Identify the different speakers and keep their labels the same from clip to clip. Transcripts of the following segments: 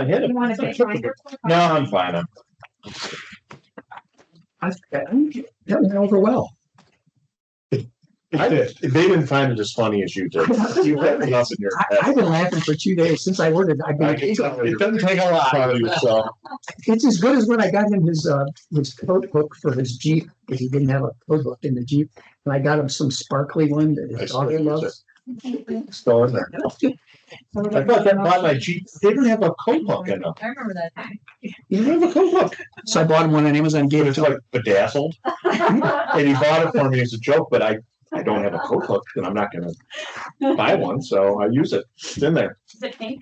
Speaker 1: ahead of
Speaker 2: You wanna
Speaker 1: me.
Speaker 2: take mine?
Speaker 1: No, I'm fine. I'm- I, I'm that went over well. I, they didn't find it as funny as you did. You had enough in your
Speaker 3: I,
Speaker 1: head.
Speaker 3: I've been laughing for two days since I ordered. I've
Speaker 1: I
Speaker 3: been,
Speaker 1: can tell It doesn't take a lot. Proud of yourself.
Speaker 3: it's as good as when I got him his, uh, his code book for his Jeep, because he didn't have a code book in the Jeep. And I got him some sparkly one that
Speaker 1: I
Speaker 3: his
Speaker 1: still
Speaker 3: dog
Speaker 1: use
Speaker 3: loves.
Speaker 1: It's Still in there. I thought that bought my Jeep. They didn't have a code book in them.
Speaker 2: I remember that.
Speaker 1: You didn't have a code book.
Speaker 3: So I bought him one on Amazon,
Speaker 1: It
Speaker 3: gave it
Speaker 1: was
Speaker 3: to him.
Speaker 1: like bedazzled and he bought it for me as a joke, but I, I don't have a code book and I'm not gonna buy one, so I use it. It's in there.
Speaker 2: Is it pink?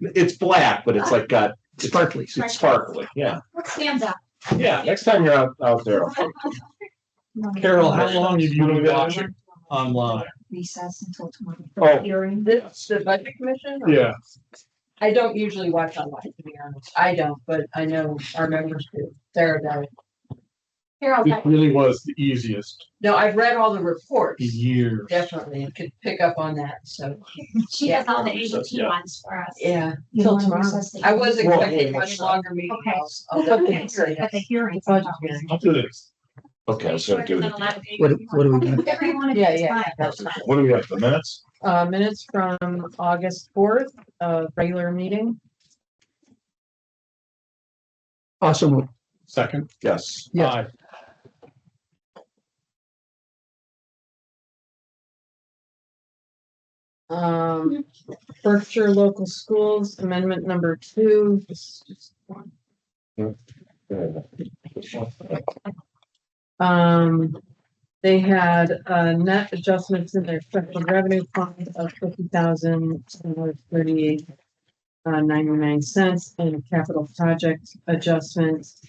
Speaker 1: It's black, but it's like got
Speaker 3: Sparkly.
Speaker 1: It's sparkly, yeah.
Speaker 2: What stands out?
Speaker 1: Yeah, next time you're out, out there.
Speaker 4: Carol, how long have you been watching online?
Speaker 2: Recess until tomorrow.
Speaker 1: Oh,
Speaker 5: Hearing this, the budget commission? or-
Speaker 4: Yeah.
Speaker 5: I don't usually watch online, to be honest. I don't, but I know our members do. They're about,
Speaker 2: Carol,
Speaker 4: It really was the easiest
Speaker 5: no, I've read all the reports,
Speaker 4: in years.
Speaker 5: definitely, and could pick up on that, so,
Speaker 2: she does all the
Speaker 1: Recess,
Speaker 2: ADT
Speaker 1: yeah.
Speaker 2: ones for us.
Speaker 5: yeah.
Speaker 2: You
Speaker 5: Till
Speaker 2: want to
Speaker 5: tomorrow.
Speaker 2: recess the-
Speaker 5: I was
Speaker 1: Well,
Speaker 5: expecting
Speaker 1: yeah.
Speaker 5: much longer meeting.
Speaker 2: Okay.
Speaker 5: I'll- I'll
Speaker 2: Okay,
Speaker 5: definitely
Speaker 2: so-
Speaker 5: say
Speaker 2: But
Speaker 5: that.
Speaker 2: the hearings.
Speaker 5: Budget hearing.
Speaker 4: I'll do this.
Speaker 1: okay, I was gonna do it.
Speaker 3: What, what do we do?
Speaker 2: Whatever you want to do
Speaker 5: Yeah,
Speaker 2: is
Speaker 5: yeah,
Speaker 2: fine.
Speaker 5: that's fine.
Speaker 1: What do we have, the minutes?
Speaker 5: Uh, minutes from August fourth, uh, regular meeting.
Speaker 3: Also moved.
Speaker 4: Second.
Speaker 1: Yes.
Speaker 3: Yeah.
Speaker 4: Aye.
Speaker 5: Um, Berkshire Local Schools Amendment Number Two. This is just one. Um, they had uh net adjustments in their special revenue fund of fifty thousand seven hundred thirty-eight uh ninety-nine cents and a capital project adjustments.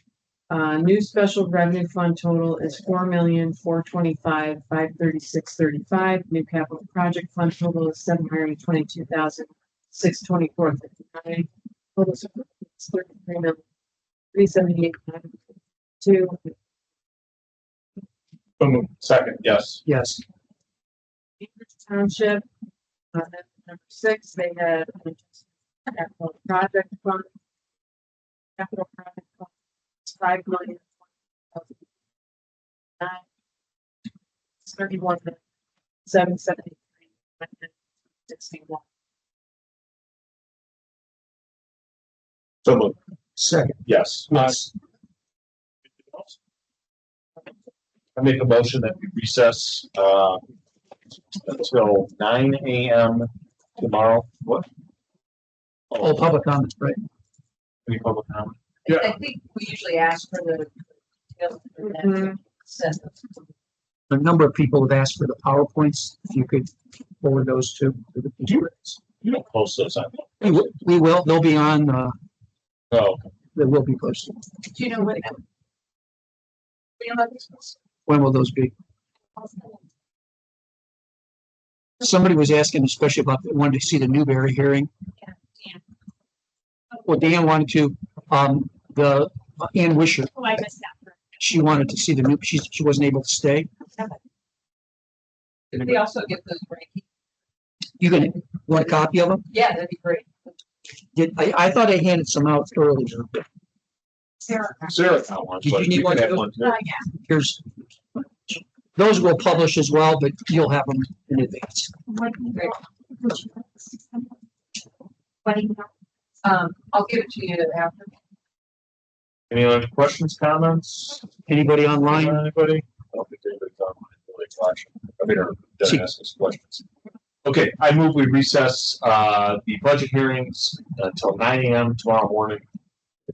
Speaker 5: Uh, new special revenue fund total is four million four twenty-five five thirty-six thirty-five. New capital project fund total is seven hundred twenty-two thousand six twenty-four fifty-nine. Total is thirty-three million three seventy-eight oh two.
Speaker 4: So moved.
Speaker 1: Second, yes.
Speaker 3: Yes.
Speaker 5: Cambridge Township. Uh, number six, they had an adjustment capital project fund. Capital project fund, is five million. Nine. Thirty-one, seven seventy-three. Sixty-one.
Speaker 1: So moved,
Speaker 3: Second.
Speaker 1: yes.
Speaker 4: Aye.
Speaker 1: I make a motion that we recess, uh, until nine AM tomorrow. What? Oh,
Speaker 3: All public comments, right?
Speaker 1: Any public comment?
Speaker 4: Yeah.
Speaker 5: I think we usually ask for the.
Speaker 3: A number of people have asked for the PowerPoints. If you could forward those to. to the people.
Speaker 1: You don't post those, I think.
Speaker 3: We will- We will, they'll be on, uh,
Speaker 1: Oh,
Speaker 3: they will be posted.
Speaker 5: Do you know what?
Speaker 3: When will those be? Somebody was asking especially about, wanted to see the Newberry hearing.
Speaker 2: Yeah, Dan.
Speaker 3: Well, Dan wanted to, um, the, Ann Wisher,
Speaker 2: Oh, I missed that.
Speaker 3: she wanted to see the new, she, she wasn't able to stay.
Speaker 5: We also get those rankings.
Speaker 3: You gonna, want a copy of them?
Speaker 5: Yeah, that'd be great.
Speaker 3: Did, I, I thought I handed some out earlier.
Speaker 2: Sarah.
Speaker 1: Sarah got one,
Speaker 3: Did
Speaker 1: but
Speaker 3: you need
Speaker 1: you
Speaker 3: one
Speaker 1: can have
Speaker 3: too?
Speaker 1: one too.
Speaker 2: Oh, yeah.
Speaker 3: Here's, those will publish as well, but you'll have them in advance.
Speaker 2: What do you
Speaker 5: Great.
Speaker 2: want? What do you want?
Speaker 5: Um, I'll give it to you after.
Speaker 1: Any other questions, comments?
Speaker 3: Anybody online?
Speaker 1: Anybody? I don't think anybody's online, really, watching. I mean, or doesn't ask us questions. Okay, I move we recess, uh, the budget hearings until nine AM tomorrow morning.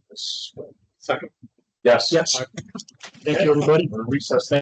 Speaker 1: Yes.
Speaker 4: Second.
Speaker 1: Yes.
Speaker 3: Yes. Thank you, everybody.
Speaker 1: We're recessed. Thank